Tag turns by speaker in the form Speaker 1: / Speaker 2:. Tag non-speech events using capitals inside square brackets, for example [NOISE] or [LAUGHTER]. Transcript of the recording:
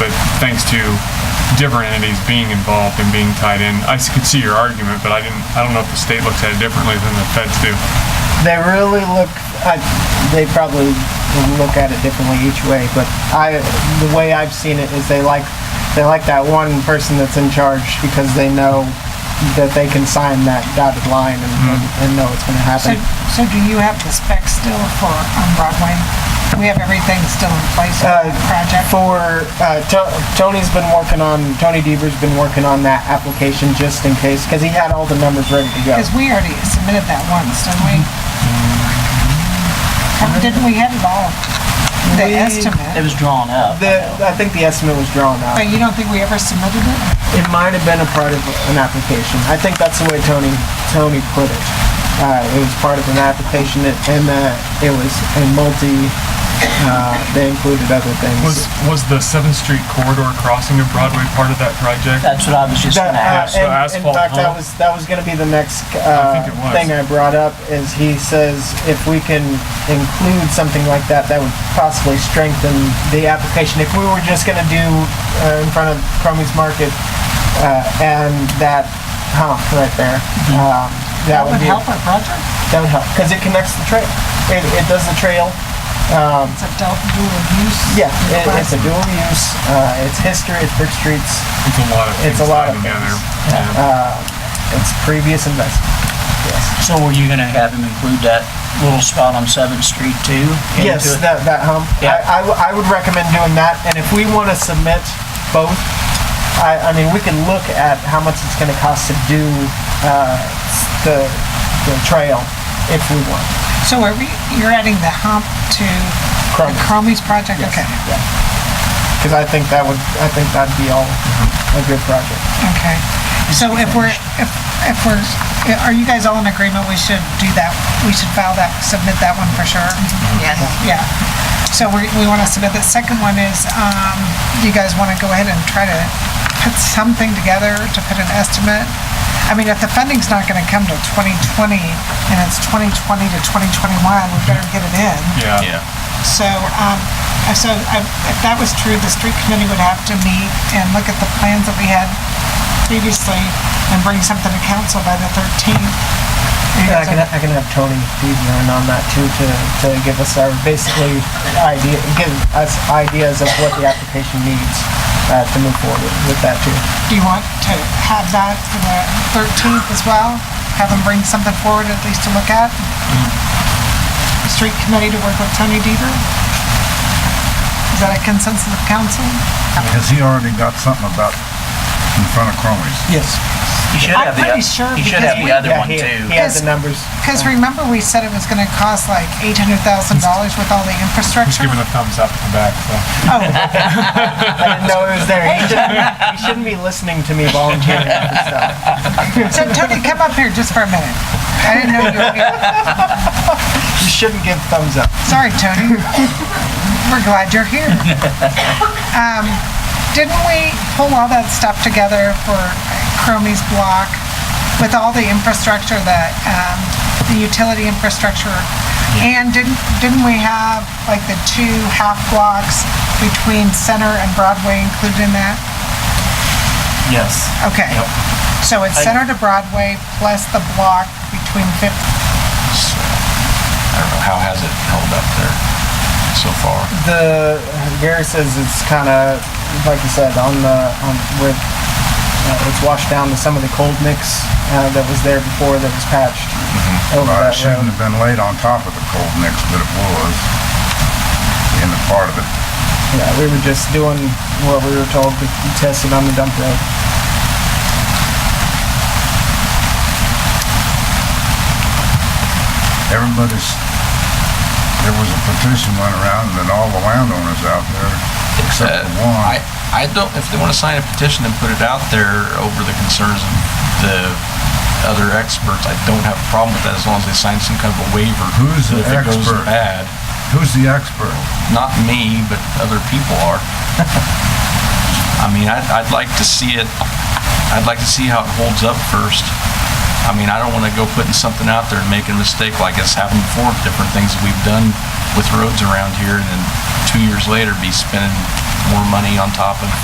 Speaker 1: thanks to different entities being involved and being tied in. I s- could see your argument, but I didn't, I don't know if the state looks at it differently than the feds do.
Speaker 2: They really look, I, they probably will look at it differently each way, but I, the way I've seen it is they like, they like that one person that's in charge because they know that they can sign that dotted line and, and know it's gonna
Speaker 3: So,
Speaker 2: happen.
Speaker 3: so do you have the specs still for, on Broadway? We have everything still in place for
Speaker 2: Uh,
Speaker 3: that project?
Speaker 2: For, uh, To- Tony's been working on, Tony Deaver's been working on that application just in case, cause he had all the numbers ready to go.
Speaker 3: Because we already submitted that once, didn't we? Or Didn't we have it all? The
Speaker 2: Mm-hmm. We-
Speaker 4: It
Speaker 3: estimate?
Speaker 4: was drawn up.
Speaker 2: The, I think the estimate was drawn out.
Speaker 3: But you don't think we ever submitted it?
Speaker 2: it might have been a part of an application. I think that's the way Tony Tony put it. Uh, it was part of an application, and- and uh, it was a multi. Uh, they included other things.
Speaker 1: Was, was the Seventh Street corridor crossing of Broadway part of that project?
Speaker 4: That's what I was just
Speaker 2: That,
Speaker 4: gonna
Speaker 2: uh,
Speaker 4: ask.
Speaker 1: so
Speaker 2: and- in
Speaker 1: asphalt
Speaker 2: fact, that
Speaker 1: hump?
Speaker 2: was that was going to be the next uh,
Speaker 1: think it was.
Speaker 2: thing I brought up. Is he says if we can include something like that, that would possibly strengthen the application. If we were just going to do uh, in front of Cromie's Market uh, and that hump right there,
Speaker 1: Mm-hmm.
Speaker 2: um, that,
Speaker 3: That would
Speaker 2: be
Speaker 3: help our project?
Speaker 2: that would help because it connects the trail. It, it does the trail.
Speaker 3: It's a dual dual use?
Speaker 2: Yeah, it, it's
Speaker 3: request.
Speaker 2: a dual use. Uh, it's history. It's brick streets.
Speaker 1: It's a lot of
Speaker 2: It's
Speaker 1: things
Speaker 2: a lot
Speaker 1: tied
Speaker 2: of
Speaker 1: together.
Speaker 2: things.
Speaker 1: Yeah.
Speaker 2: It's previous investment. Yes.
Speaker 4: So were you gonna have him include that little spot on Seventh Street too? into
Speaker 2: Yes,
Speaker 4: it?
Speaker 2: that, that hump.
Speaker 4: Yeah.
Speaker 2: I, I w- I would recommend doing that, and if we want to submit both, I, I mean, we can look at how much it's gonna cost to do, uh, s- the, the trail, if we want.
Speaker 3: So are we, you're adding the hump to the
Speaker 2: Crumb,
Speaker 3: Cromie's project? Okay,
Speaker 2: cause I think that would, I think that'd be all a good project.
Speaker 3: okay. So if we're, if, if we're, are you guys all in agreement we should do that? We should file that, submit that one for sure?
Speaker 5: Yes.
Speaker 3: Yeah. So we, we want to submit, the second one is, um, you guys want to go ahead and try to put something together to put an estimate? I mean, if the funding's not going to come till 2020 and it's 2020 to 2021, we better get it in.
Speaker 2: Uh,
Speaker 1: Yeah.
Speaker 3: So, um, uh, so uh, if that was true, the street committee would have to meet and look at the plans that we had previously and bring something to council by the 13th.
Speaker 2: And I can, I can have Tony Deaver in on that too, to, to give us our, basically, idea, give us ideas of what the application needs, uh, to move forward with that too.
Speaker 3: Do you want to have that for the 13th as well? Have them bring something forward at least to look at? The Street committee to work with Tony Deaver? Is that a consensus of council?
Speaker 6: Has he already got something about in front of Cromie's?
Speaker 2: Yes.
Speaker 4: You should
Speaker 3: I'm
Speaker 4: have the,
Speaker 3: pretty sure
Speaker 4: you should
Speaker 3: because
Speaker 4: have
Speaker 3: we-
Speaker 4: the other
Speaker 2: Yeah,
Speaker 4: one
Speaker 2: he- He
Speaker 4: too.
Speaker 2: has the numbers.
Speaker 3: Because
Speaker 2: Uh,
Speaker 3: remember, we said it was gonna cost like $800,000 with all the
Speaker 1: Just
Speaker 3: infrastructure?
Speaker 1: giving a thumbs up in the back, so.
Speaker 2: I didn't know it was there. You shouldn't, you shouldn't be listening to me volunteering for stuff.
Speaker 3: So Tony, come up here just for a minute. I didn't know you were here.
Speaker 2: You shouldn't give thumbs up.
Speaker 3: Sorry, Tony. We're glad you're here. Um, didn't we pull all that stuff together for Cromie's block with all the infrastructure that, um, the utility infrastructure? And didn't, didn't we have like the two half blocks between Center and Broadway included in that?
Speaker 4: Yes.
Speaker 3: Okay. So it's Center to Broadway plus the block between Fifth
Speaker 7: I don't know, how has it held up there so far?
Speaker 2: The Gary says it's kind of like you said on the on with uh, it's washed down to some of the cold mix uh, that was there before that was patched over
Speaker 6: Well,
Speaker 2: that
Speaker 6: it shouldn't
Speaker 2: road.
Speaker 6: have been laid on top of the cold mix, but it was in the part of it.
Speaker 2: Yeah, we were just doing what we were told to test it on the dump road.
Speaker 6: Everybody's, there was a petition went around and then all the landowners out there, except for one.
Speaker 7: I, I don't, if they want to sign a petition and put it out there over the concerns of the other experts, I don't have a problem with that as long as they sign some kind of a waiver.
Speaker 6: Who's the
Speaker 7: that If it goes
Speaker 6: expert?
Speaker 7: bad,
Speaker 6: Who's the expert?
Speaker 7: not me, but other people
Speaker 6: [LAUGHS]
Speaker 7: are. I mean, I'd, I'd like to see it, I'd like to see how it holds up first. I mean, I don't want to go putting something out there and making a mistake like it's happened before, with different things that we've done with roads around here, and then two years later be spending more money on top of